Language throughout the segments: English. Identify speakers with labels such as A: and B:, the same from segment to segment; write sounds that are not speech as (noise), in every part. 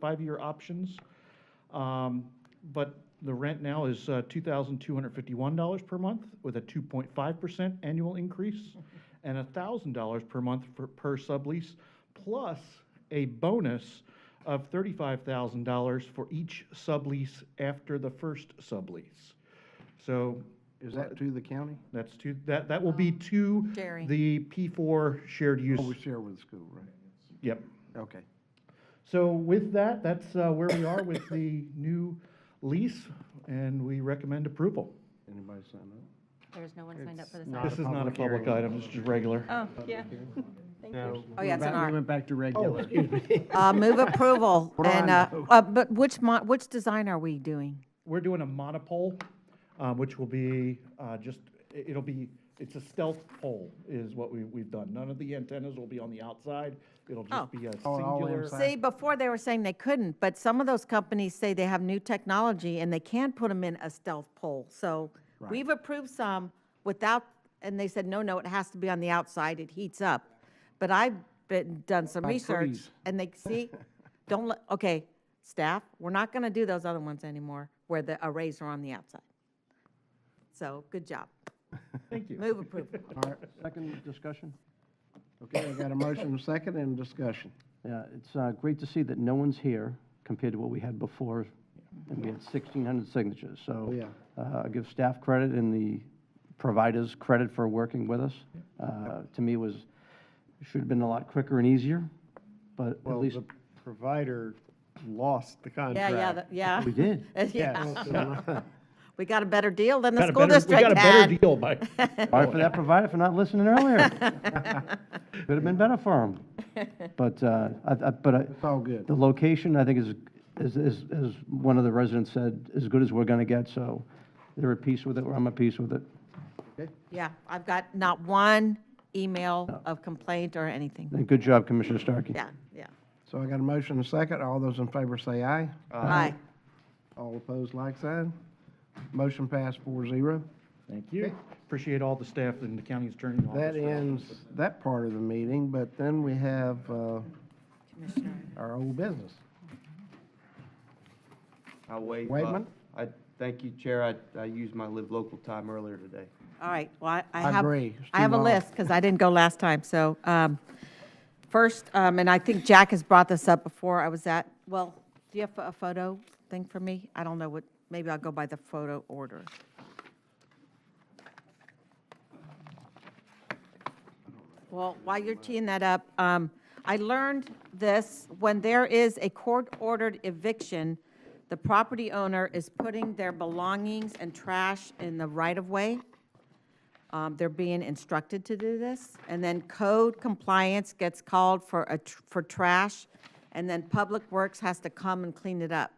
A: five-year options. Um, But the rent now is uh, $2,251 per month with a 2.5% annual increase and $1,000 per month for, per sublease, plus a bonus of $35,000 for each sublease after the first sublease. So
B: Is that to the county?
A: that's two, that, that will be to
C: Jerry.
A: the P4 shared use.
B: Oh, we share with the school, right?
A: Yep.
B: Okay.
A: So with that, that's uh, where we are with the new lease, and we recommend approval.
B: Anybody sign up?
C: There's no one signed up for this.
D: not
A: This
C: item.
A: is not a
D: public
A: public
D: hearing.
A: item, it's just regular.
C: Oh, yeah. Thank you.
D: No.
C: Oh, yeah, it's an
D: We
C: R.
D: went back to
B: Oh,
D: regular.
C: Uh, move approval
B: What do I
C: and, uh,
B: know?
C: uh, but which mo, which design are we doing?
A: We're doing a monopole, uh, which will be uh, just, i- it'll be, it's a stealth pole is what we- we've done. None of the antennas will be on the outside, it'll
C: Oh.
A: just be a
B: Oh, all
A: singular.
B: inside.
C: See, before they were saying they couldn't, but some of those companies say they have new technology and they can put them in a stealth pole. So we've approved some without, and they said, no, no, it has to be on the outside, it heats up. But I've been, done some
B: Like
C: research
B: trees.
C: and they, see, don't let, okay, staff, we're not gonna do those other ones anymore where the arrays are on the outside. So, good job.
A: Thank you.
C: Move approval.
B: All right, second discussion? Okay, I got a motion, and a second, and discussion.
D: Yeah, it's uh, great to see that no one's here compared to what we had before, and we had 1,600 signatures. So
B: Oh, Yeah.
D: uh, I give staff credit and the providers credit for working with us. Uh, To me, it was, should have been a lot quicker and easier, but at
E: Well,
D: least
E: the provider lost the
C: Yeah,
E: contract.
C: yeah, that- yeah.
D: we did.
C: (laughs) Yeah,
E: Yeah.
C: we got a better deal than the
A: Got a
C: school
A: better-
C: district
A: We got a
C: had.
A: better deal by,
C: (laughs)
D: Sorry
B: (laughs)
D: for that provider for not listening earlier. Could have been better for
B: (laughs)
D: him. But, uh, I- I- but I.
B: (laughs) It's all good.
D: The location, I think, is, is, is, as one of the residents said, as good as we're gonna get, so they're at peace with it, or I'm at peace with it.
C: Yeah, I've got not one email of complaint or anything.
D: And good job, Commissioner Starkey.
C: Yeah, yeah.
B: So I got a motion, and a second. All those in favor say aye.
A: Uh,
C: Aye.
B: All opposed, like sign. Motion passed four zero.
A: thank you. Appreciate all the staff and the county attorney's office.
B: That
A: for-
B: ends that part of the meeting, but then we have uh,
C: Commissioner.
B: our old business.
F: I'll wait. uh,
B: Waitman?
F: I, thank you, Chair. I, I used my live local time earlier today.
C: All right, well, I- I
B: I
C: have,
B: agree. It's
C: I have
B: too
C: a
B: long.
C: list, because I didn't go last time, so, um, first, um, and I think Jack has brought this up before, I was at, well, do you have a photo thing for me? I don't know what, maybe I'll go by the photo order. Well, while you're teeing that up, um, I learned this, when there is a court-ordered eviction, the property owner is putting their belongings and trash in the right-of-way. Um, They're being instructed to do this. And then code compliance gets called for, a tr- for trash, and then Public Works has to come and clean it up.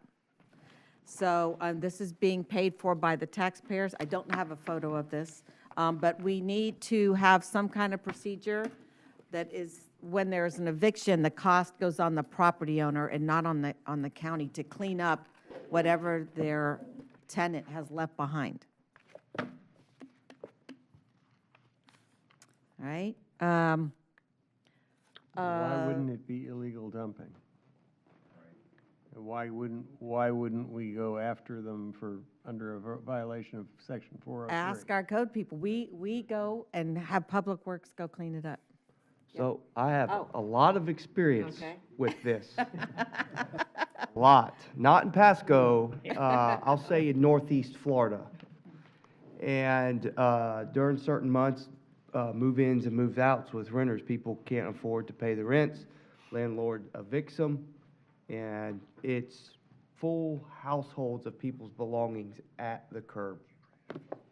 C: So um, this is being paid for by the taxpayers. I don't have a photo of this, um, but we need to have some kind of procedure that is, when there is an eviction, the cost goes on the property owner and not on the, on the county to clean up whatever their tenant has left behind. All right? Um, Uh,
E: Why wouldn't it be illegal dumping? And Why wouldn't, why wouldn't we go after them for, under a vi- violation of section four oh
C: Ask
E: three?
C: our code people. We, we go and have Public Works go clean it up.
F: So I have
C: Oh.
F: a lot of experience
C: Okay.
F: with
C: (laughs)
F: this. A Lot, not in Pasco, uh, I'll say in northeast Florida. And, uh, during certain months, uh, move-ins and move-outs with renters, people can't afford to pay the rents. Landlord evicts them, and it's full households of people's belongings at the curb.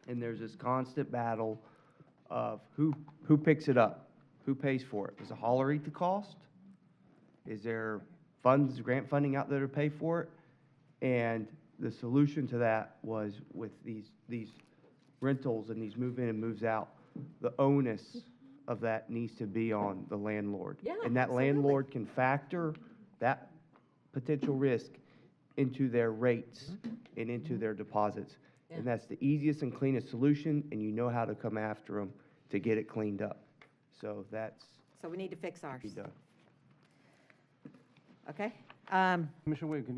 F: and there's this constant battle of who, who picks it up? Who pays for it? Does the hauler eat the cost? Is there funds, grant funding out there to pay for it? And the solution to that was with these, these rentals and these move in and moves out, the onus of that needs to be on the landlord.
C: Yeah,
F: And that
C: absolutely.
F: landlord can factor that potential risk into their rates and into their deposits. And that's the easiest and cleanest solution, and you know how to come after them to get it cleaned up. So that's
C: So we need to fix ours,
F: be done.
C: okay?
G: Um,
C: Commissioner Wade, can you